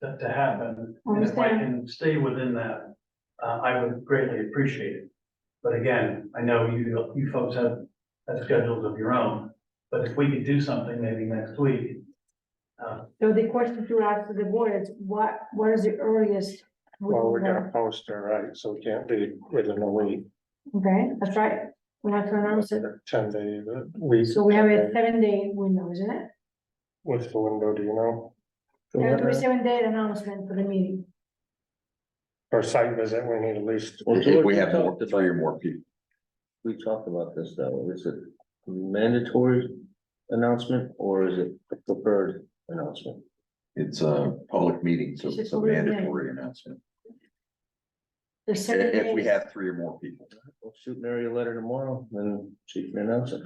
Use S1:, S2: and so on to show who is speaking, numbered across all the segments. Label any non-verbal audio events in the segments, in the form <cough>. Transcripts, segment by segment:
S1: that to happen. And if I
S2: Understand.
S1: can stay within that, uh, I would greatly appreciate it. But again, I know you, you folks have, have schedules of your own, but if we could do something maybe next week.
S2: So the question to ask to the board is, what, what is the earliest? we
S3: Well, we're
S2: can have-
S3: gonna post her, right, so we can't be within a week,
S2: Okay, that's right. We have to announce it.
S3: ten day, the week.
S2: So we have a seven day window, isn't it?
S3: What's the window, do you know? The
S2: There will be
S3: window
S2: seven day announcement for the meeting.
S3: For site visit, we need at least,
S4: Well,
S5: If we
S4: George,
S5: have
S4: we
S5: more,
S4: talked about-
S5: three or more people,
S4: We talked about this though, is it mandatory announcement or is it preferred announcement?
S5: it's a public meeting, so
S2: It's
S5: it's
S2: just
S5: a
S2: public meeting.
S5: mandatory announcement.
S2: The
S5: I-
S2: seven
S5: If we
S2: days.
S5: have three or more people,
S4: We'll shoot Mary a letter tomorrow, then she can announce it.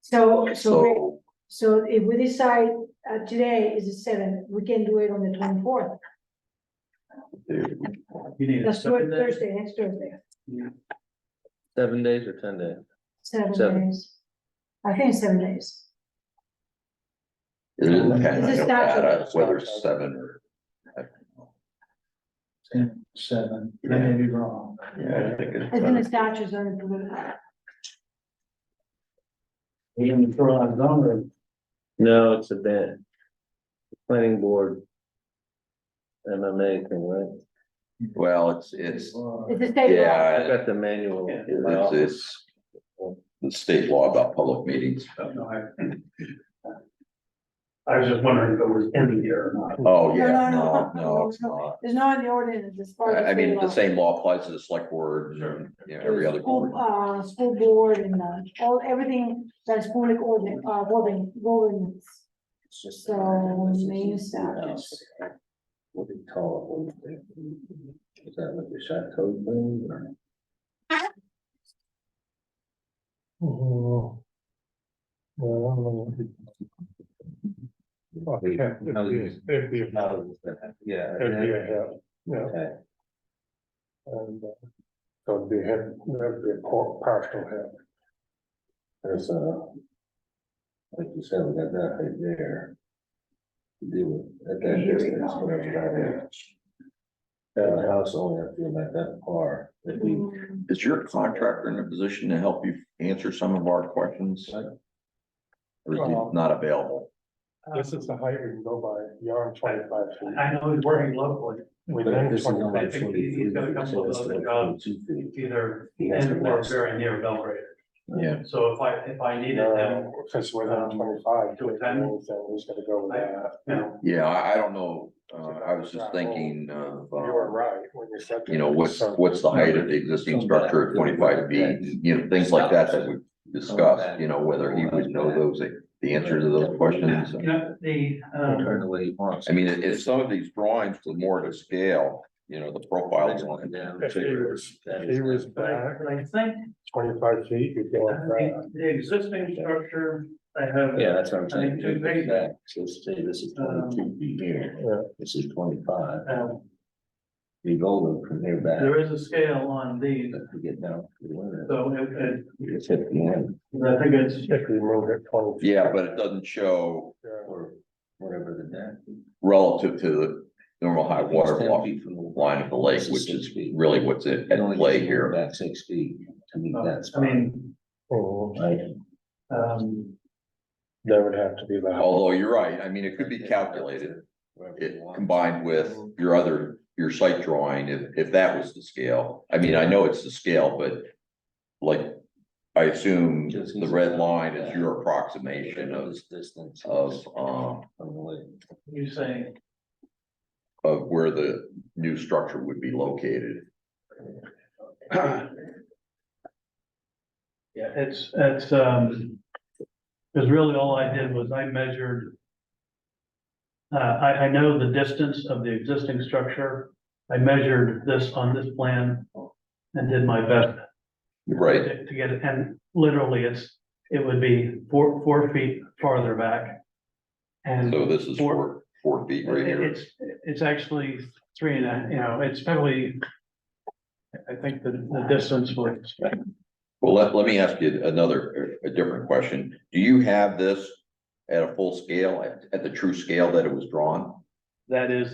S2: So, so, we-
S5: so
S2: so if we decide, uh, today is the seventh, we can do it on the twenty-fourth.
S5: dude,
S1: You need a
S2: That's Thur-
S1: second day?
S2: Thursday, next Thursday,
S4: Seven days or ten days?
S2: seven
S4: Seven.
S2: days. I think it's seven days.
S5: it didn't depend,
S2: This
S5: I
S2: is
S5: don't
S2: not-
S5: know whether it's seven or.
S1: Seven, I may be wrong.
S5: Yeah, I think
S2: I think the
S5: it's.
S2: statutes are included.
S1: You're gonna throw out number.
S4: No, it's a ban. Planning board. MMA thing, right?
S5: Well, it's, it's,
S2: It's the state law.
S4: I got the manual. in my
S5: it's,
S4: office.
S5: it's the state law about public meetings.
S1: <laughs> I was just wondering if it was in here or not.
S5: Oh,
S2: No,
S5: yeah,
S2: no,
S5: no,
S2: no,
S5: no, it's
S2: no, no.
S5: not.
S2: There's no in the ordinance as far as.
S5: I, I mean, the
S2: state law.
S5: same law applies to the select board, and, you know, every other board.
S2: School, uh, school board and, uh, all, everything that's public order, uh, govern, governance.
S4: It's just-
S2: So, main statutes.
S4: What do you call it? Is that like the chateau thing or?
S3: Oh. Well, I don't know. Okay, it'd be- it'd be, it'd
S4: Yeah.
S3: be a help, Oh, yeah,
S4: Okay.
S3: and, uh, so it'd be a, help, it'd be a par- partial help.
S4: There's a. Like you said, we got that right there. Deal with, at that
S2: Here we
S4: distance,
S2: go.
S4: whatever that is. At the house only, I feel like that far, if we,
S2: Mm,
S5: Is your contractor in a position to help you answer some of our questions? Or is he
S3: Uh, Well-
S5: not available?
S3: This is the height we can go by, yarn twenty-five feet.
S1: I know he's working locally,
S4: but
S3: Within
S4: this is only
S3: 25
S1: I think he's- he's got a couple of
S4: twenty-three, so
S1: other
S4: it's
S1: jobs.
S4: twenty-two feet.
S1: either
S4: He
S1: in
S4: has to
S1: or
S4: match.
S1: very near Belgrade.
S5: Yeah.
S1: So if I, if I needed them,
S3: No, Cause we're not twenty-five,
S1: To
S3: so
S1: attend?
S3: he's gonna go with that.
S1: you know,
S5: Yeah, I, I don't know. Uh, I was just thinking of,
S3: You were
S5: uh,
S3: right when you said.
S5: you know, what's,
S3: that.
S5: what's the height of the existing structure at twenty-five feet? You know, things like that that we discussed, you know, whether he would know those, the answers to those questions.
S1: you know, the,
S4: Turn
S1: um,
S4: the way he wants.
S5: I mean, if, if some of these drawings were more to scale, you know, the profiles on it.
S4: Down.
S3: If he was, if he was
S1: but I,
S3: back
S1: but I think
S3: twenty-five feet, you'd go
S1: uh,
S3: with that.
S1: the the existing structure, I have.
S4: Yeah, that's what I'm
S1: I think
S4: saying.
S1: two
S4: If it's
S1: pages.
S4: back, So say this is twenty-two feet here,
S3: Yeah.
S4: this is twenty-five,
S1: Um,
S4: you go from here back.
S1: there is a scale on these,
S4: If we get down to the limit,
S1: so it, it,
S4: it's at the end
S1: I think it's,
S3: If we moved it twenty.
S5: Yeah, but it doesn't show
S3: Yeah.
S4: or whatever the depth.
S5: relative to the normal high water block. line of the lake, which is really what's at, at play here.
S4: About six feet to meet that
S1: uh, I
S4: spot.
S1: mean,
S3: Oh,
S4: Right,
S1: um,
S3: That would have to be the. height.
S5: Although you're right, I mean, it could be calculated,
S4: wherever you
S5: it
S4: want.
S5: combined with your other, your site drawing, if, if that was the scale. I mean, I know it's the scale, but like, I assume the red line is your approximation of,
S4: This distance.
S5: of, um,
S4: From the lake.
S1: you saying,
S5: of where the new structure would be located.
S1: yeah, it's, it's, um, because really all I did was I measured. Uh, I, I know the distance of the existing structure. I measured this on this plan and did my best
S5: Right,
S1: to to get it, and literally it's, it would be four, four feet farther back. And
S5: so
S1: it-
S5: this is four, four feet right here.
S1: it's, it's actually three and a, you know, it's probably, I think the, the distance was,
S5: Well, let, let me ask you another, a different question. Do you have this at a full scale, at, at the true scale that it was drawn?
S1: that is